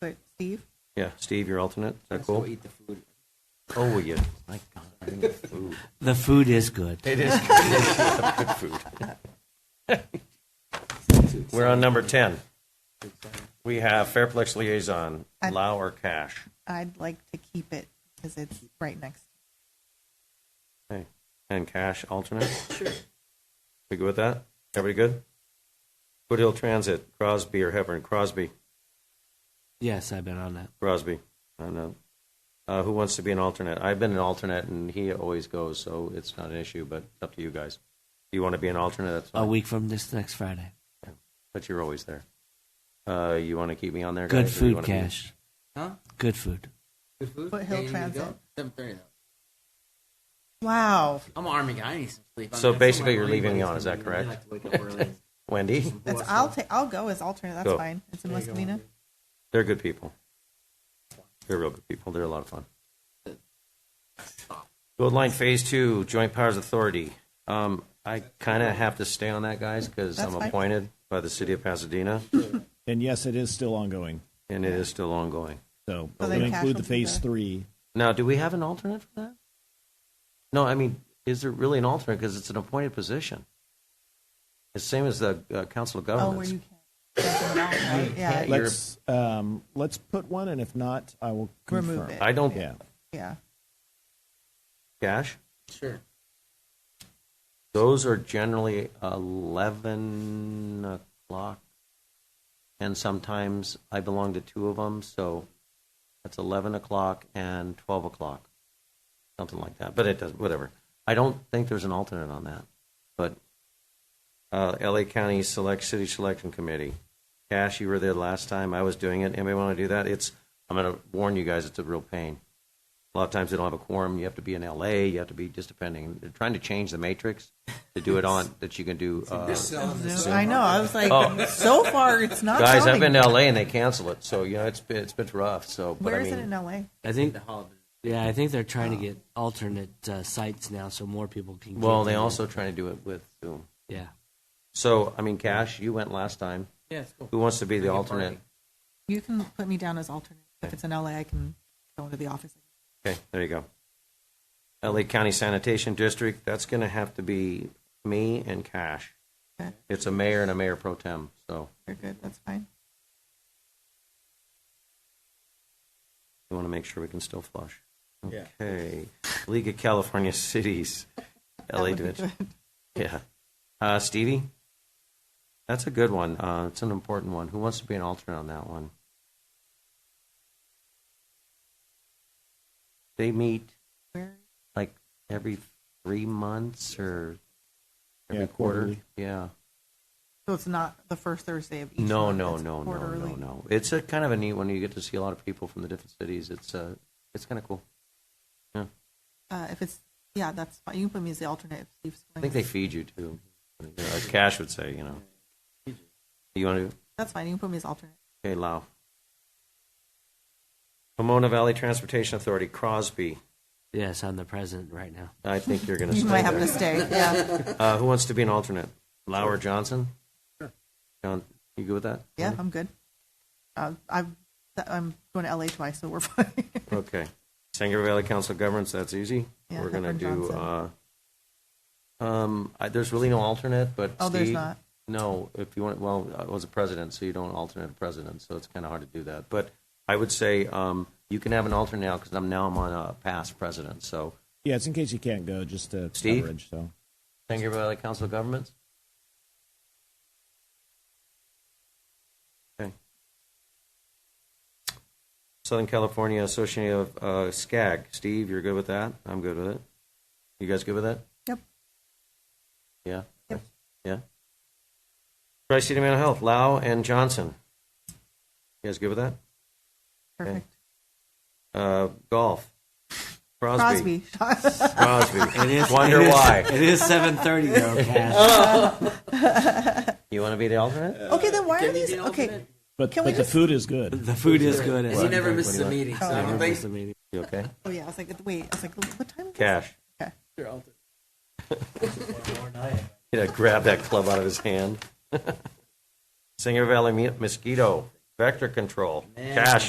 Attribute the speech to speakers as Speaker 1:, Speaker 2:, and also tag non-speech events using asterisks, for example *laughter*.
Speaker 1: put Steve.
Speaker 2: Yeah, Steve, your alternate. Is that
Speaker 3: Let's go
Speaker 2: cool?
Speaker 3: eat the food.
Speaker 2: Oh, will you?
Speaker 3: My God, I didn't get the food.
Speaker 4: *laughs* The food is good.
Speaker 2: It is good, good food. *laughs* We're on number 10. We have Fairplex Liaison,
Speaker 1: I-
Speaker 2: Lau or Cash.
Speaker 1: I'd like to keep it because it's right next.
Speaker 2: Okay. And Cash alternate? Sure. We good with that? Everybody good? Foothill Transit, Crosby or Hepburn? Crosby,
Speaker 4: Yes, I've been on that.
Speaker 2: Crosby. I don't know. Uh, who wants to be an alternate? I've been an alternate and he always goes, so it's not an issue, but it's up to you guys. You want to be an alternate? That's
Speaker 4: A
Speaker 2: fine.
Speaker 4: week from this next Friday.
Speaker 2: But you're always there. Uh, you want to keep me on there?
Speaker 4: Good
Speaker 2: guys, or you
Speaker 4: food,
Speaker 2: wanna be-
Speaker 4: Cash.
Speaker 3: Huh?
Speaker 4: Good food.
Speaker 3: Good food?
Speaker 1: Foothill Transit.
Speaker 3: Seven thirty though.
Speaker 1: Wow,
Speaker 3: I'm an army guy. I need some sleep.
Speaker 2: So
Speaker 3: I'm- I'm
Speaker 2: basically
Speaker 3: somewhere
Speaker 2: you're
Speaker 3: early,
Speaker 2: leaving
Speaker 3: but
Speaker 2: me
Speaker 3: it's
Speaker 2: on, is that
Speaker 3: gonna be- I
Speaker 2: correct?
Speaker 3: like to wake up early.
Speaker 2: Wendy,
Speaker 1: that's I'll take. I'll go as alternate. That's
Speaker 2: Go.
Speaker 1: fine. It's in
Speaker 3: There you go,
Speaker 1: Muscovina.
Speaker 3: Wendy.
Speaker 2: they're good people. They're real good people. They're a lot of fun. Gold Line Phase Two, Joint Powers Authority. Um, I kind of have to stay on that, guys, because
Speaker 1: That's
Speaker 2: I'm
Speaker 1: fine.
Speaker 2: appointed by the city of Pasadena,
Speaker 5: And yes, it is still ongoing.
Speaker 2: and it is still ongoing.
Speaker 5: So
Speaker 1: So then
Speaker 5: it would include
Speaker 1: Cash will
Speaker 5: the
Speaker 1: be
Speaker 5: phase
Speaker 1: the-
Speaker 5: three.
Speaker 2: Now, do we have an alternate for that? No, I mean, is there really an alternate? Because it's an appointed position. It's same as the uh, Council of
Speaker 1: Oh, where
Speaker 2: Governments.
Speaker 1: you can't. Right? Yeah,
Speaker 2: You're-
Speaker 5: Let's, um, let's put one, and if not, I will confirm.
Speaker 1: Remove it.
Speaker 2: I don't.
Speaker 5: Yeah.
Speaker 1: yeah.
Speaker 2: Cash.
Speaker 3: Sure.
Speaker 2: Those are generally 11 o'clock, and sometimes I belong to two of them, so that's 11 o'clock and 12 o'clock, something like that. But it does, whatever. I don't think there's an alternate on that. But uh, LA County Select City Selection Committee. Cash, you were there last time. I was doing it. Anybody want to do that? It's. I'm going to warn you guys. It's a real pain. A lot of times they don't have a quorum. You have to be in LA. You have to be just depending. They're trying to change the matrix to do
Speaker 1: *laughs*
Speaker 2: it on that you can do. Uh,
Speaker 1: I know. I was like,
Speaker 2: Oh.
Speaker 1: so far it's not.
Speaker 2: guys, I've
Speaker 1: showing.
Speaker 2: been to LA and they cancel it. So you know it's been, it's been rough. So but
Speaker 1: Where
Speaker 2: I
Speaker 1: is
Speaker 2: mean,
Speaker 1: it in LA?
Speaker 4: I think.
Speaker 3: The Oh. holiday.
Speaker 4: Yeah, I think they're trying to get alternate uh, sites now, so more people can. get
Speaker 2: well, they
Speaker 4: there.
Speaker 2: also trying to do it with Zoom.
Speaker 4: Yeah.
Speaker 2: So I mean, Cash, you went last time.
Speaker 3: Yeah, it's cool.
Speaker 2: Who wants to be the
Speaker 3: Like a
Speaker 2: alternate?
Speaker 3: party.
Speaker 1: You can put me down as alternate. If it's in LA, I can go into the office.
Speaker 2: Okay, there you go. LA County Sanitation District. That's going to have to be me and Cash.
Speaker 1: Okay.
Speaker 2: It's a mayor and a mayor pro tem. So
Speaker 1: They're good. That's fine.
Speaker 2: we want to make sure we can still flush.
Speaker 3: Yeah.
Speaker 2: Okay. League of California Cities,
Speaker 1: That
Speaker 2: LA
Speaker 1: would be
Speaker 2: Division.
Speaker 1: good.
Speaker 2: Yeah. Uh, Stevie? That's a good one. Uh, it's an important one. Who wants to be an alternate on that one? They meet
Speaker 1: Where?
Speaker 2: like every three months or every
Speaker 5: Yeah,
Speaker 2: quarter.
Speaker 5: quarterly.
Speaker 2: Yeah.
Speaker 1: So it's not the first Thursday of each.
Speaker 2: No,
Speaker 1: month,
Speaker 2: no,
Speaker 1: it's
Speaker 2: no, no,
Speaker 1: quarterly.
Speaker 2: no, no. It's a kind of a neat one. You get to see a lot of people from the different cities. It's uh, it's kind of cool. Yeah.
Speaker 1: Uh, if it's yeah, that's fine. You can put me as the alternate. If Steve's
Speaker 2: I think they feed you too. As Cash would say, you know. You want to?
Speaker 1: That's fine. You can put me as alternate.
Speaker 2: Okay, Lau. Pomona Valley Transportation Authority, Crosby.
Speaker 4: Yes, I'm the president right now.
Speaker 2: I think you're going to
Speaker 1: You
Speaker 2: stay
Speaker 1: might have to
Speaker 2: there.
Speaker 1: stay.
Speaker 2: *laughs*
Speaker 1: Yeah,
Speaker 2: Uh, who wants to be an alternate? Lau or Johnson? John, you good with that?
Speaker 1: yeah, I'm good. Uh, I'm I'm going to LA twice, so we're *laughs* fine.
Speaker 2: Okay. Sangre Valley Council of Governments, that's easy.
Speaker 1: Yeah,
Speaker 2: We're going to
Speaker 1: Hepburn
Speaker 2: do, uh,
Speaker 1: Johnson.
Speaker 2: um, I, there's really no alternate, but
Speaker 1: Oh, there's
Speaker 2: Steve-
Speaker 1: not?
Speaker 2: No, if you want, well, I was a president, so you don't alternate a president, so it's kind of hard to do that. But I would say, um, you can have an alternate now because I'm, now I'm on a past president, so.
Speaker 5: Yeah, it's in case you can't go, just to
Speaker 2: Steve?
Speaker 5: coverage, so.
Speaker 2: Sangre Valley Council of Governments? Okay. Southern California Association of uh, SCAG. Steve, you're good with that? I'm good with it. You guys good with that?
Speaker 1: Yep.
Speaker 2: Yeah?
Speaker 1: Yep.
Speaker 2: Yeah? Tri-City Mental Health, Lau and Johnson. You guys good with that?
Speaker 1: Perfect.
Speaker 2: Uh, Golf, Crosby.
Speaker 1: Crosby. Crosby. *laughs*
Speaker 2: Crosby.
Speaker 4: It
Speaker 2: *laughs*
Speaker 4: is.
Speaker 2: Wonder
Speaker 4: it is-
Speaker 2: why.
Speaker 4: It is
Speaker 2: *laughs*
Speaker 4: 7:30 though, Cash.
Speaker 3: Oh.
Speaker 2: You want to be the alternate?
Speaker 1: okay, then why
Speaker 3: Can
Speaker 1: are
Speaker 3: you be
Speaker 1: these?
Speaker 3: an
Speaker 1: Okay,
Speaker 3: alternate?
Speaker 5: But,
Speaker 1: Can we
Speaker 5: but the
Speaker 1: just-
Speaker 5: food is good.
Speaker 4: the food is good. at
Speaker 3: And he never
Speaker 4: 7:30.
Speaker 3: misses a meeting, so I
Speaker 4: Never
Speaker 3: don't
Speaker 4: miss
Speaker 3: think
Speaker 4: a meeting.
Speaker 2: You okay?
Speaker 1: oh yeah, I was like, wait, I was like, what time? is it?
Speaker 2: Cash.
Speaker 1: Okay.
Speaker 3: you're alternate.
Speaker 2: *laughs* Yeah, grab that club out of his *laughs* hand. Singer Valley Mu- Mosquito Vector Control.
Speaker 3: Man.
Speaker 2: Cash,